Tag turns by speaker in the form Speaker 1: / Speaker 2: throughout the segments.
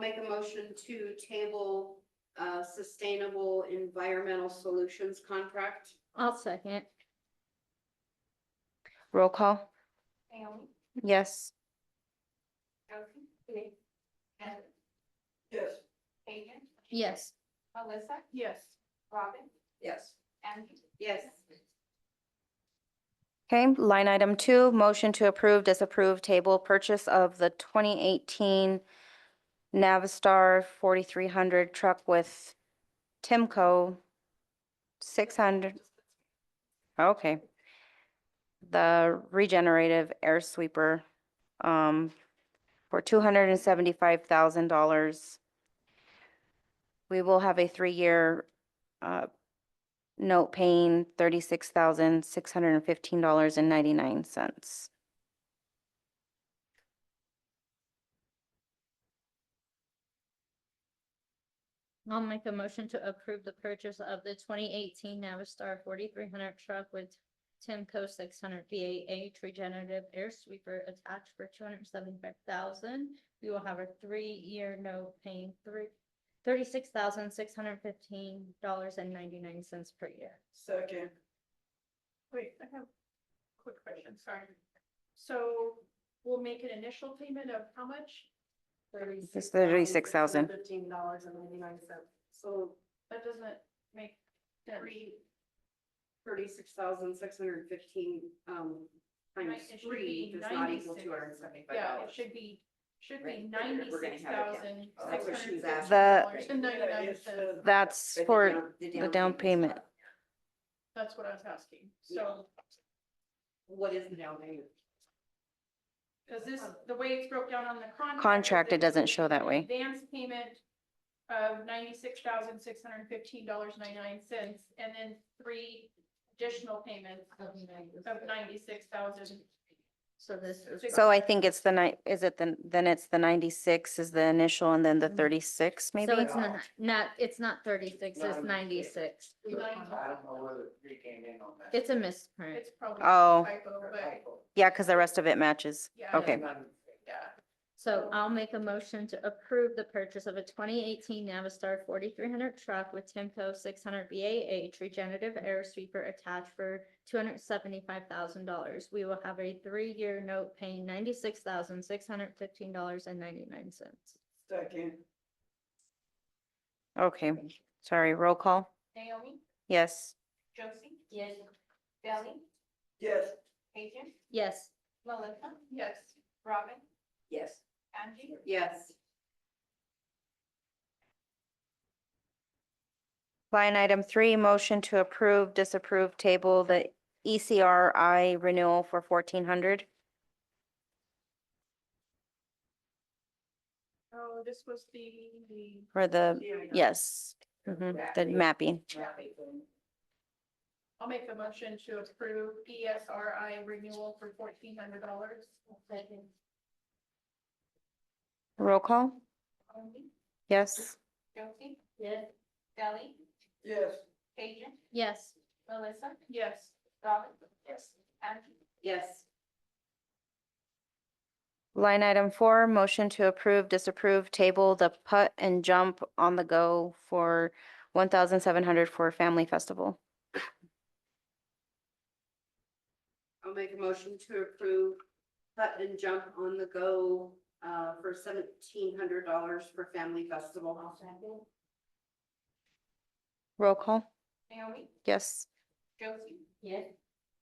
Speaker 1: make a motion to table uh sustainable environmental solutions contract.
Speaker 2: I'll second.
Speaker 3: Roll call?
Speaker 4: Naomi,
Speaker 3: Yes.
Speaker 4: Elsie, Nick, Heather,
Speaker 1: Yes.
Speaker 4: Adrian,
Speaker 2: Yes.
Speaker 4: Melissa,
Speaker 1: Yes.
Speaker 4: Robin,
Speaker 1: Yes.
Speaker 4: Angie.
Speaker 1: Yes.
Speaker 3: Okay, line item two, motion to approve, disapprove, table purchase of the 2018 Navistar 4300 truck with Timco 600. Oh, Okay. The regenerative air sweeper um, for $275,000. We will have a three-year uh, note paying thirty-six thousand, six hundred and fifteen dollars and ninety-nine cents.
Speaker 2: I'll make a motion to approve the purchase of the twenty eighteen Navistar forty-three hundred truck with Timco six hundred VAH regenerative air sweeper attached for two hundred seventy-five thousand. We will have a three-year note paying three, thirty-six thousand, six hundred fifteen dollars and ninety-nine cents per year.
Speaker 5: Second. Wait, I have a quick question, sorry. So we'll make an initial payment of how much?
Speaker 3: It's thirty-six thousand.
Speaker 1: Fifteen dollars and ninety-nine cents. So
Speaker 5: That doesn't make sense.
Speaker 1: three, thirty-six thousand, six hundred and fifteen, um,
Speaker 5: Right,
Speaker 1: times
Speaker 5: it should
Speaker 1: three
Speaker 5: be
Speaker 1: does not equal
Speaker 5: 96.
Speaker 1: two hundred and seventy-five
Speaker 5: Yeah, it
Speaker 1: dollars.
Speaker 5: should be, should be
Speaker 1: Right, we're gonna- we're gonna
Speaker 5: ninety-six
Speaker 1: have it
Speaker 5: thousand,
Speaker 1: Oh,
Speaker 5: six
Speaker 1: that's what
Speaker 5: hundred
Speaker 1: she
Speaker 5: fifty
Speaker 1: was asking.
Speaker 5: dollars and ninety-nine cents.
Speaker 3: That's for the down payment.
Speaker 5: That's what I was asking. So,
Speaker 1: What is the down payment?
Speaker 5: because this, the way it's broke down on the contract. is
Speaker 3: Contract, it
Speaker 5: that there's
Speaker 3: doesn't show that
Speaker 5: an
Speaker 3: way.
Speaker 5: Advance payment of ninety-six thousand, six hundred and fifteen dollars, ninety-nine cents, and then three additional payments of ninety-six thousand.
Speaker 2: So this is.
Speaker 3: So I think it's the night, is it the, then it's the ninety-six is the initial and then the
Speaker 2: Mhm.
Speaker 3: thirty-six maybe?
Speaker 2: So it's not, not, it's not thirty-six, it's ninety-six.
Speaker 6: I don't know where the three came in on that.
Speaker 2: It's a misprint.
Speaker 5: It's probably
Speaker 3: Oh.
Speaker 5: a typo, but
Speaker 3: Yeah, because the rest of it matches.
Speaker 5: yeah.
Speaker 3: Okay.
Speaker 5: Yeah.
Speaker 2: So I'll make a motion to approve the purchase of a twenty eighteen Navistar forty-three hundred truck with Timco six hundred BAH regenerative air sweeper attached for two hundred seventy-five thousand dollars. We will have a three-year note paying ninety-six thousand, six hundred fifteen dollars and ninety-nine cents.
Speaker 1: Second.
Speaker 3: Okay, sorry, roll call?
Speaker 4: Naomi,
Speaker 3: Yes.
Speaker 4: Josie. Yes. Ellie,
Speaker 1: Yes.
Speaker 4: Adrian,
Speaker 2: Yes,
Speaker 4: Melissa,
Speaker 5: Yes.
Speaker 4: Robin,
Speaker 1: Yes.
Speaker 4: Angie.
Speaker 1: Yes.
Speaker 3: Line item three, motion to approve, disapprove, table the E ECRI renewal for fourteen hundred.
Speaker 5: Oh, this was the, the.
Speaker 3: For the, yes,
Speaker 1: Mm-hmm.
Speaker 3: mhm, the mapping.
Speaker 5: I'll make the motion to approve ESRI renewal for fourteen hundred dollars.
Speaker 3: Roll call?
Speaker 4: Naomi,
Speaker 3: Yes.
Speaker 4: Josie. Yes. Ellie,
Speaker 1: Yes.
Speaker 4: Adrian,
Speaker 2: yes.
Speaker 4: Melissa,
Speaker 5: Yes.
Speaker 4: Robin. Yes. Angie,
Speaker 1: Yes.
Speaker 3: Line item four, motion to approve, disapprove, table the putt and jump on the go for one thousand seven hundred for Family Festival.
Speaker 1: I'll make a motion to approve putt and jump on the go uh for seventeen hundred dollars for family festival.
Speaker 3: Roll call?
Speaker 4: Naomi,
Speaker 3: Yes.
Speaker 4: Josie,
Speaker 2: Yes.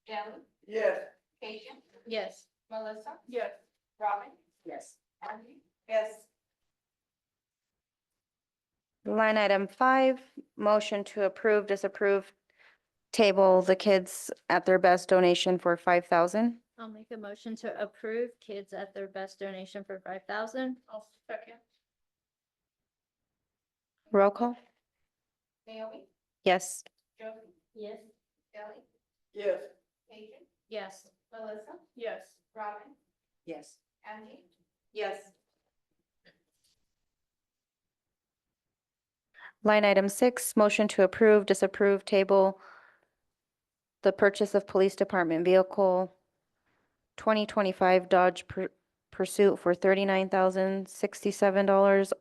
Speaker 4: Ellie,
Speaker 6: Yes.
Speaker 4: Adrian,
Speaker 2: Yes,
Speaker 4: Melissa,
Speaker 5: Yes.
Speaker 4: Robin,
Speaker 1: Yes.
Speaker 4: Angie,
Speaker 1: Yes.
Speaker 3: Line item five, motion to approve, disapprove, table the kids at their best donation for five thousand.
Speaker 2: I'll make a motion to approve kids at their best donation for five thousand.
Speaker 5: I'll second.
Speaker 3: Roll call?
Speaker 4: Naomi,
Speaker 3: Yes.
Speaker 4: Josie,
Speaker 2: Yes.
Speaker 4: Ellie,
Speaker 6: Yes.
Speaker 4: Adrian,
Speaker 2: Yes,
Speaker 4: Melissa,
Speaker 5: Yes.
Speaker 4: Robin,
Speaker 1: Yes.
Speaker 4: Angie,
Speaker 1: Yes.
Speaker 3: Line item six, motion to approve, disapprove, table the purchase of police department vehicle twenty twenty-five Dodge Pur- Pursuit for thirty-nine thousand sixty-seven dollars